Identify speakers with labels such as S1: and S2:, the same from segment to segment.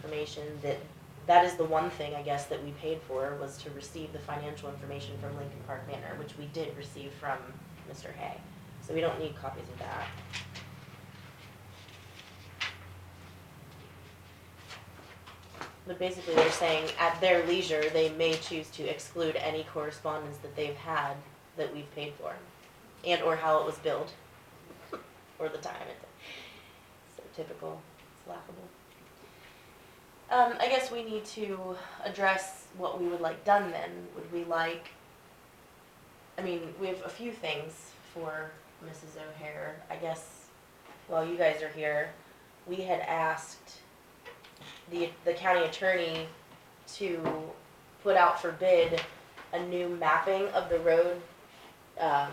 S1: information that, that is the one thing, I guess, that we paid for, was to receive the financial information from Lincoln Park Manor, which we did receive from Mr. Hay. So we don't need copies of that. But basically, they're saying at their leisure, they may choose to exclude any correspondence that they've had that we've paid for, and or how it was billed, or the time it. So typical, it's laughable. Um, I guess we need to address what we would like done then. Would we like, I mean, we have a few things for Mrs. O'Hare. I guess while you guys are here, we had asked the, the county attorney to put out for bid a new mapping of the road, um,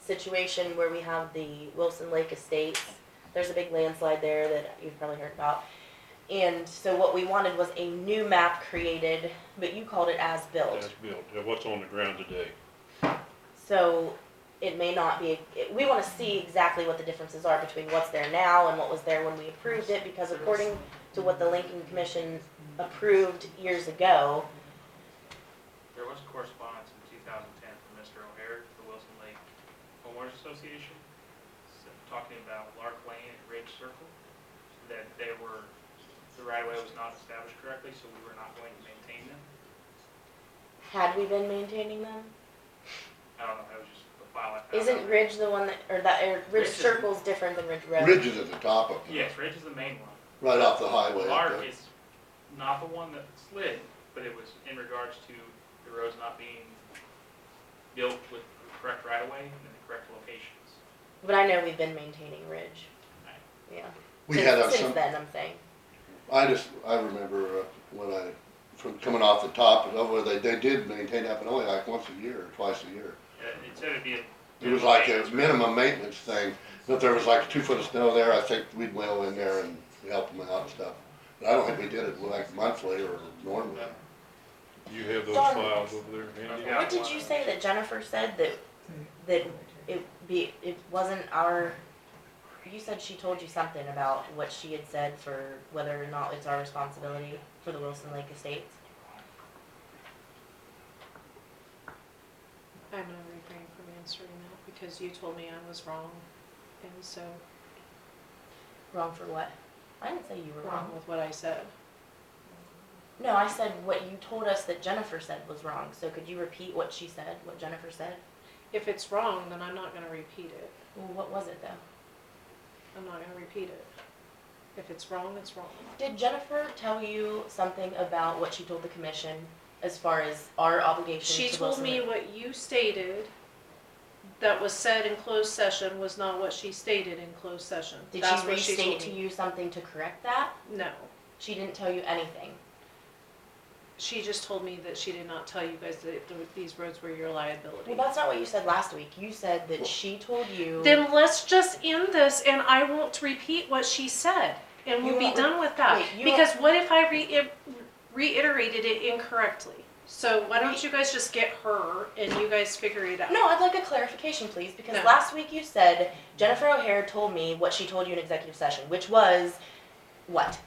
S1: situation where we have the Wilson Lake Estates. There's a big landslide there that you've probably heard about. And so what we wanted was a new map created, but you called it as built.
S2: That's built, uh, what's on the ground today.
S1: So it may not be, it- we wanna see exactly what the differences are between what's there now and what was there when we approved it, because according to what the Lincoln Commission approved years ago,
S3: There was correspondence in 2010 from Mr. O'Hare, the Wilson Lake Homeowners Association, s- talking about Lark Lane and Ridge Circle, that they were, the right-of-way was not established correctly, so we were not going to maintain them.
S1: had we been maintaining them?
S3: I don't know, that was just the file I found.
S1: Isn't Ridge the one that, or that, or
S3: Ridge
S1: Ridge
S3: is-
S1: Circle's different than Ridge Road?
S4: Ridge is at the top of it,
S3: Yes, Ridge is the main one.
S4: right off the highway. up
S3: Lark
S4: there.
S3: is not the one that slid, but it was in regards to the roads not being built with the correct right-of-way and in the correct locations.
S1: But I know we've been maintaining Ridge.
S3: Right.
S1: Yeah.
S4: We
S1: Since-
S4: had uh,
S1: Since
S4: some,
S1: then, I'm saying.
S4: I just, I remember uh, when I, from coming off the top, and over, they, they did maintain that, but only like once a year, or twice a year.
S3: Uh, It said it'd be a.
S4: It was like a minimum maintenance thing, if there was like two foot of snow there, I think we'd wheel in there and help them out and stuff. But I don't think we did it like monthly or normally.
S2: You have those
S1: Done.
S2: files over there, Andy?
S3: Yeah.
S1: What did you say that Jennifer said that, that it be, it wasn't our, you said she told you something about what she had said for whether or not it's our responsibility for the Wilson Lake Estates?
S5: I'm gonna refrain from answering that because you told me I was wrong. And so,
S1: Wrong for what? I didn't say you were
S5: wrong
S1: wrong.
S5: with what I said.
S1: No, I said what you told us that Jennifer said was wrong, so could you repeat what she said, what Jennifer said?
S5: If it's wrong, then I'm not gonna repeat it.
S1: Well, what was it though?
S5: I'm not gonna repeat it. If it's wrong, it's wrong.
S1: Did Jennifer tell you something about what she told the commission as far as our obligation to Wilson
S5: She told me
S1: Lake?
S5: what you stated that was said in closed session was not what she stated in closed session.
S1: Did
S5: That's
S1: she
S5: what told
S1: restate to
S5: me.
S1: you something to correct that?
S5: No.
S1: She didn't tell you anything.
S5: She just told me that she did not tell you guys that th- these roads were your liability.
S1: Well, that's not what you said last week. You said that she told you.
S5: Then let's just end this and I won't repeat what she said and
S1: You
S5: we'll be
S1: won't re-
S5: done with that.
S1: wait, you
S5: Because what if I re- reiterated it incorrectly? So why don't you guys just get her and you guys figure it out?
S1: no, I'd like a clarification, please, because
S5: No.
S1: last week you said Jennifer O'Hare told me what she told you in executive session, which was what?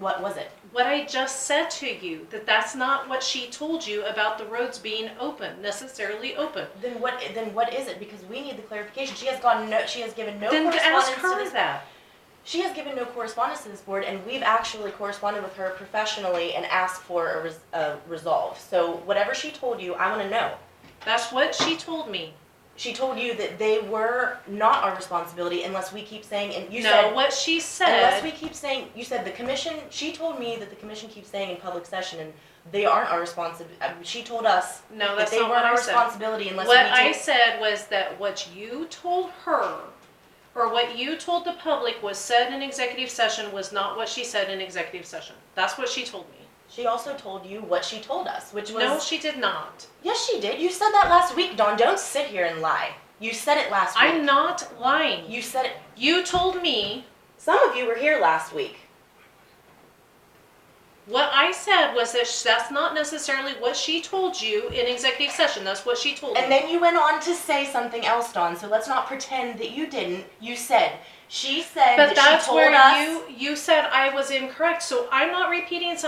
S1: What was it?
S5: What I just said to you, that that's not what she told you about the roads being open, necessarily open.
S1: Then what? Then what is it? Because we need the clarification. She has gone. No, she has given no
S5: Then
S1: correspondence
S5: ask
S1: to
S5: her
S1: this.
S5: that.
S1: She has given no correspondence to this board, and we've actually corresponded with her professionally and asked for a, res- a resolve. So whatever she told you, I want to know.
S5: That's what she told me.
S1: She told you that they were not our responsibility unless we keep saying, and you
S5: No,
S1: said,
S5: what she
S1: unless we
S5: said,
S1: keep saying, you said the commission, she told me that the commission keeps saying in public session, and they aren't our responsi, uh, she told us
S5: no,
S1: that
S5: that's
S1: they
S5: not what
S1: weren't our
S5: I said.
S1: responsibility unless we
S5: What I
S1: do.
S5: said was that what you told her, or what you told the public was said in executive session was not what she said in executive session. That's what she told me.
S1: She also told you what she told us, which
S5: No,
S1: was,
S5: she did not.
S1: yes, she did, you said that last week, Dawn, don't sit here and lie. You said it last
S5: I'm
S1: week.
S5: not lying.
S1: You said it,
S5: You told me,
S1: some of you were here last week.
S5: what I said was that sh- that's not necessarily what she told you in executive session. That's what she
S1: She said
S5: But
S1: that
S5: that's
S1: she told us.
S5: where you, you said I was incorrect, so I'm not repeating something